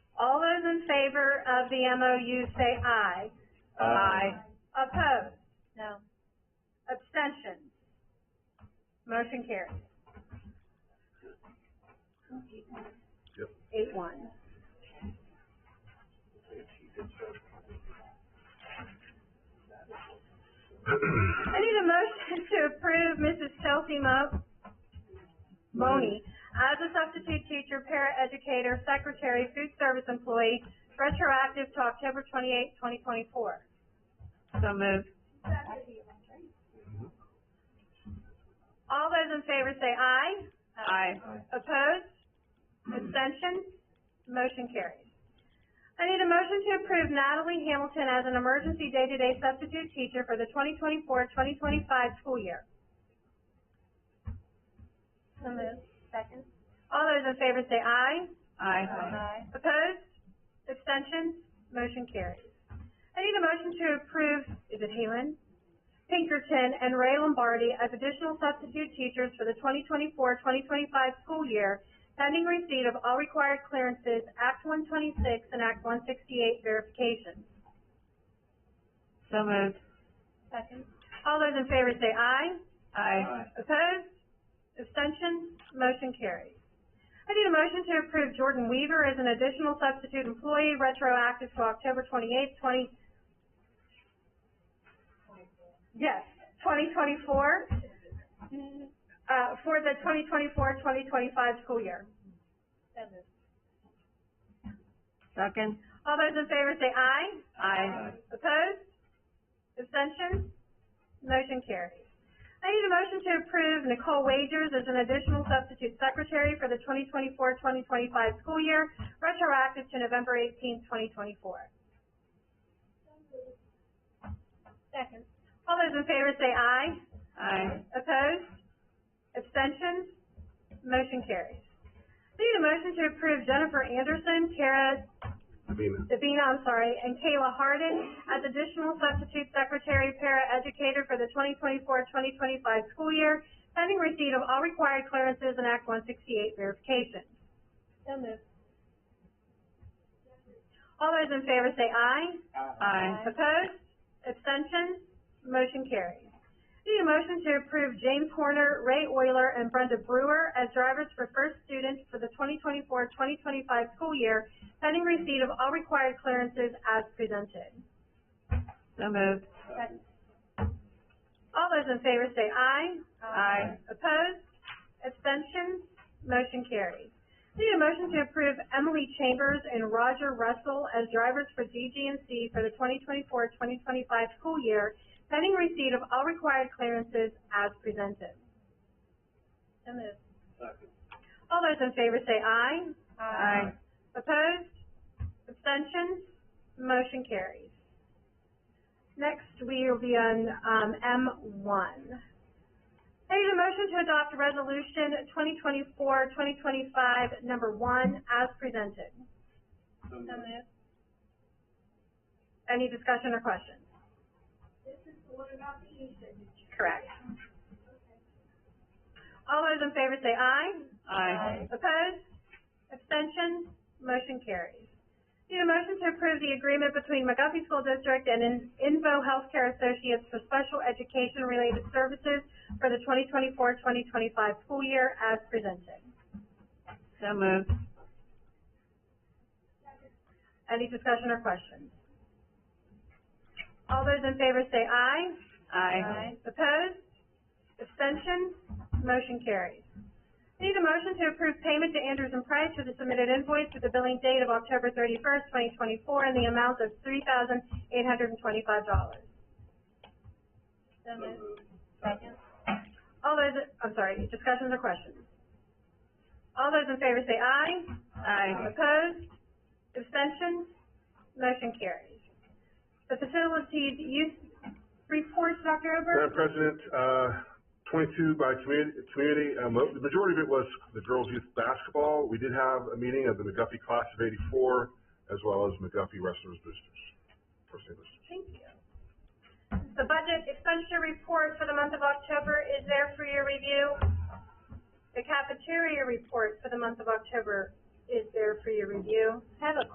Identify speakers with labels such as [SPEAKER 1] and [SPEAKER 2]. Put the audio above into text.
[SPEAKER 1] favor of the MOU say aye. Uh,
[SPEAKER 2] Aye.
[SPEAKER 1] Opposed?
[SPEAKER 3] No.
[SPEAKER 1] Abstentions? Motion carries.
[SPEAKER 2] Yep.
[SPEAKER 1] Eight one. I need a motion to approve Mrs. Chelsea Mo- Moni as a substitute teacher, paraeducator, secretary, food service employee, retroactive to October twenty-eighth, twenty twenty-four.
[SPEAKER 3] So moved.
[SPEAKER 1] All those in favor say aye.
[SPEAKER 3] Aye.
[SPEAKER 1] Opposed? Abstentions? Motion carries. I need a motion to approve Natalie Hamilton as an emergency day-to-day substitute teacher for the 2024-2025 school year.
[SPEAKER 3] So moved. Second.
[SPEAKER 1] All those in favor say aye.
[SPEAKER 3] Aye.
[SPEAKER 1] Opposed? Abstentions? Motion carries. I need a motion to approve, is it Halen? Pinkerton and Ray Lombardi as additional substitute teachers for the 2024-2025 school year, pending receipt of all required clearances, Act one twenty-six and Act one sixty-eight verification.
[SPEAKER 3] So moved.
[SPEAKER 1] Second. All those in favor say aye.
[SPEAKER 3] Aye.
[SPEAKER 1] Opposed? Abstentions? Motion carries. I need a motion to approve Jordan Weaver as an additional substitute employee retroactive to October twenty-eighth, twenty... Yes, twenty twenty-four, uh, for the 2024-2025 school year.
[SPEAKER 3] Second.
[SPEAKER 1] All those in favor say aye.
[SPEAKER 3] Aye.
[SPEAKER 1] Opposed? Abstentions? Motion carries. I need a motion to approve Nicole Wagers as an additional substitute secretary for the 2024-2025 school year, retroactive to November eighteenth, twenty twenty-four. Second. All those in favor say aye.
[SPEAKER 3] Aye.
[SPEAKER 1] Opposed? Abstentions? Motion carries. I need a motion to approve Jennifer Anderson, Kara
[SPEAKER 2] Davina.
[SPEAKER 1] Davina, I'm sorry, and Kayla Harden as additional substitute secretary paraeducator for the 2024-2025 school year, pending receipt of all required clearances and Act one sixty-eight verification.
[SPEAKER 3] So moved.
[SPEAKER 1] All those in favor say aye.
[SPEAKER 3] Aye.
[SPEAKER 1] Opposed? Abstentions? Motion carries. Need a motion to approve James Horner, Ray Euler, and Brenda Brewer as drivers for first students for the 2024-2025 school year, pending receipt of all required clearances as presented.
[SPEAKER 3] So moved.
[SPEAKER 1] All those in favor say aye.
[SPEAKER 3] Aye.
[SPEAKER 1] Opposed? Abstentions? Motion carries. Need a motion to approve Emily Chambers and Roger Russell as drivers for DGNC for the 2024-2025 school year, pending receipt of all required clearances as presented. So moved. All those in favor say aye.
[SPEAKER 3] Aye.
[SPEAKER 1] Opposed? Abstentions? Motion carries. Next, we will be on, um, M one. I need a motion to adopt resolution 2024-2025 number one, as presented. Any discussion or questions? This is the one about the Correct. All those in favor say aye.
[SPEAKER 3] Aye.
[SPEAKER 1] Opposed? Abstentions? Motion carries. Need a motion to approve the agreement between McGuffey School District and In- Invo Healthcare Associates for special education-related services for the 2024-2025 school year as presented.
[SPEAKER 3] So moved.
[SPEAKER 1] Any discussion or questions? All those in favor say aye.
[SPEAKER 3] Aye.
[SPEAKER 1] Opposed? Abstentions? Motion carries. Need a motion to approve payment to Andrews and Price for the submitted invoice with the billing date of October thirty-first, twenty twenty-four, in the amount of three thousand eight hundred and twenty-five dollars.
[SPEAKER 3] So moved. Second.
[SPEAKER 1] All those, I'm sorry, discussions or questions? All those in favor say aye.
[SPEAKER 3] Aye.
[SPEAKER 1] Opposed? Abstentions? Motion carries. The facilities use reports, Dr. Ober?
[SPEAKER 2] Madam President, uh, twenty-two by community, community, um, the majority of it was the girls' youth basketball. We did have a meeting of the McGuffey class of eighty-four, as well as McGuffey wrestlers boosters. First name boosters.
[SPEAKER 1] Thank you. The budget expenditure report for the month of October is there for your review. The cafeteria report for the month of October is there for your review. I have a